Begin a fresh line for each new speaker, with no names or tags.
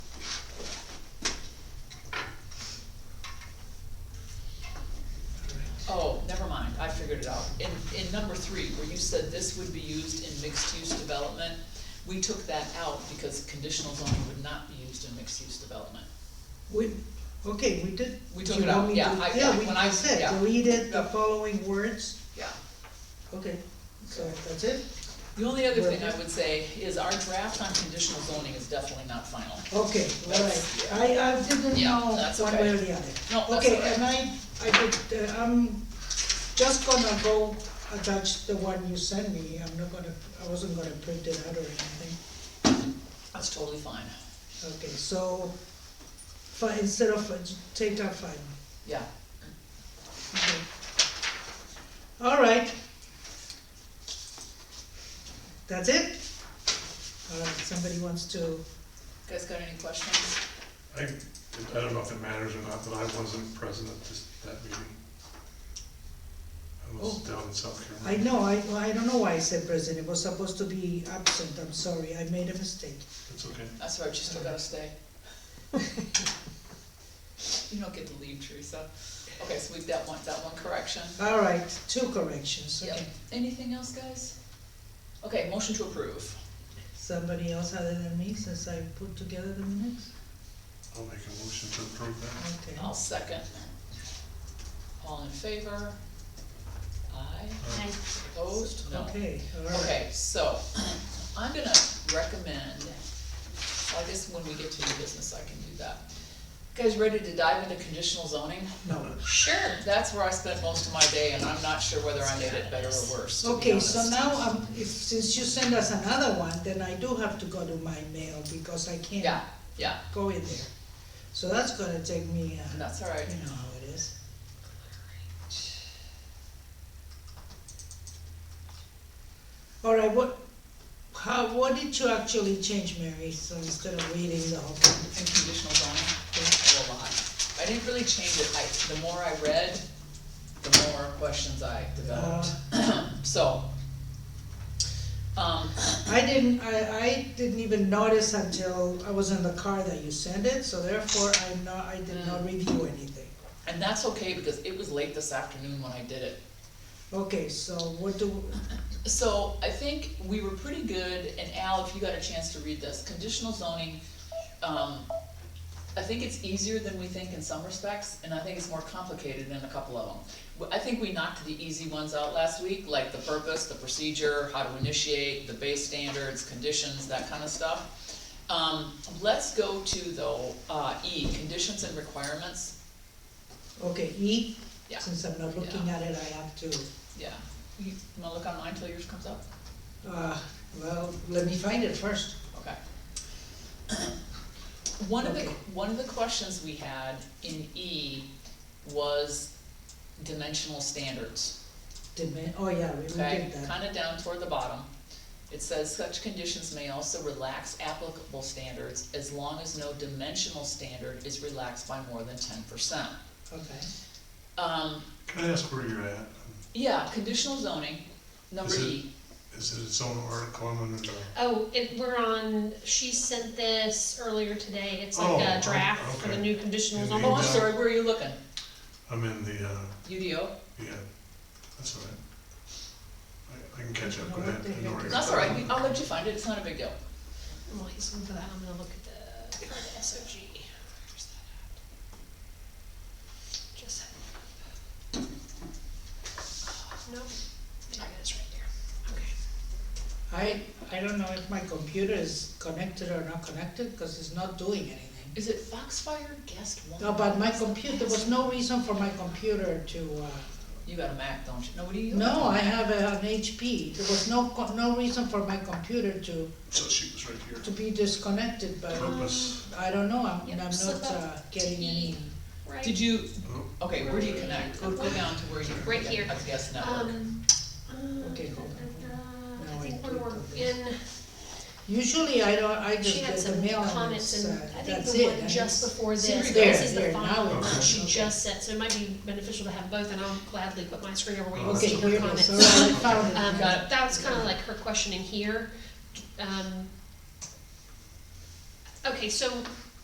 Oh, in, in number three, where you said this would be used in mixed-use development, we took that out because conditional zoning would not be used in mixed-use development.
We, okay, we did.
We took
you
it
want
out,
me
yeah,
to-
I- yeah,
Yeah,
when I-
we said,
yeah.
deleted the
Yeah.
following words,
Yeah.
okay, so that's it?
The only other thing I
Right.
would say is our draft on conditional zoning is definitely not final.
Okay, all right,
That's-
I, I didn't
Yeah,
know
that's
one
okay.
way or the other.
No, that's
Okay,
all right.
and I, I did, uh, I'm just gonna go attach the one you sent me, I'm not gonna, I wasn't gonna print it out or anything.
That's totally fine.
Okay, so, fi, instead of, uh, take that fine,
Yeah,
okay. All right. That's it? All right, somebody wants to,
You guys got any questions?
I, I don't know if it matters or not, but I wasn't present at this, that meeting. I was down in South
Oh. I
Carolina.
know, I, I don't know why I said present, it was supposed to be absent, I'm sorry, I made a mistake.
It's okay.
That's right, you still gotta stay. You don't get to leave, Teresa. Okay, so we've got one, that one correction.
All right, two corrections,
Yep.
okay.
Anything else, guys? Okay, motion to approve.
Somebody else other than me, since I put together the minutes?
I'll make a motion to approve that.
Okay.
I'll second. All in favor? Aye.
Uh,
Opposed? No.
Okay, all right.
Okay, so I'm gonna recommend, I guess when we get to new business, I can do that. Guys ready to dive into conditional zoning?
No.
Sure. That's where I spent most of my day, and I'm not sure whether I made it better or worse, to be
Okay, so
honest.
now, um, if, since you send us another one, then I do have to go to my mail because I
Yeah,
can't
yeah,
go in there. So that's gonna take me,
and
uh,
that's all right.
you know how it is. All right, what, how, what did you actually change, Mary, so instead of reading the whole thing?
And conditional zoning, there's a lot. I didn't really change it, I, the more I read, the more questions I developed,
Uh,
so. Um,
I didn't, I, I didn't even notice until I was in the car that you sent it, so therefore I'm not, I did not
Mm.
review anything.
and that's okay, because it was late this afternoon when I did it.
Okay, so what do,
So I think we were pretty good, and Al, if you got a chance to read this, conditional zoning, um, I think it's easier than we think in some respects, and I think it's more complicated in a couple of them. W- I think we knocked the easy ones out last week, like the purpose, the procedure, how to initiate, the base standards, conditions, that kind of stuff. Um, let's go to though, uh, E, conditions and requirements,
okay, E?
Yeah.
Since I'm not looking at it, I have to,
yeah. You wanna look on mine till yours comes up?
uh, well, let me find it first.
Okay. One of the,
Okay.
one of the questions we had in E was dimensional standards.
Demand, oh yeah, we we
Okay,
did that.
kinda down toward the bottom. It says such conditions may also relax applicable standards as long as no dimensional standard is relaxed by more than ten percent.
Okay.
Um,
Can I ask where you're at?
yeah, conditional zoning, number
Is it-
E.
Is it its own article I'm under?
Oh, it, we're on, she sent this earlier today, it's
Oh,
like a draft
oh,
for the
okay.
new conditional
Yeah,
zoning.
Oh, I'm
yeah.
sorry, where are you looking?
I'm in the, uh,
UDO?
yeah, that's all right. I, I can catch up with
What
that.
the heck
I know where
is
you're
That's
at.
all right, Oh. we- I'll let you find it, it's not a big deal.
I'm like, looking for that, I'm gonna look at the, for the SOG. Where's that at? Just had it. Nope, there it is right there, okay.
I, I don't know if my computer is connected or not connected, cause it's not doing anything.
Is it Foxfire guest one?
No, but my computer, there was no reason for my computer to, uh,
You got a Mac, don't you? No, what do you?
No, I have a- an HP. There was no, co- no reason for my computer to,
So she was right here.
to be disconnected, but
Um,
Purpose.
I don't know, I'm, I'm
Yeah,
not
slip up
uh, getting
to
any.
E, right?
Did you,
Oh,
okay, where do you connect? Go, go down to where you.
Right here.
I guess network.
Um, uh,
Okay, hold
I
Now I
think
do
when we're
the-
in.
Usually I don't, I just
She had
get the
some
mail and
comments
it's,
and
uh,
I think
that's
the
it.
one
and
just
it's-
before
Siri,
this,
there,
this is the
there, now
final
it
one
is.
she
Okay.
just said, so it might be beneficial to have both and I'll gladly put my screen over where you can
Okay,
see
Okay,
her
here it is,
comments.
all right, I found
Um,
it.
Got it.
that was kinda like her questioning here, um. Okay, so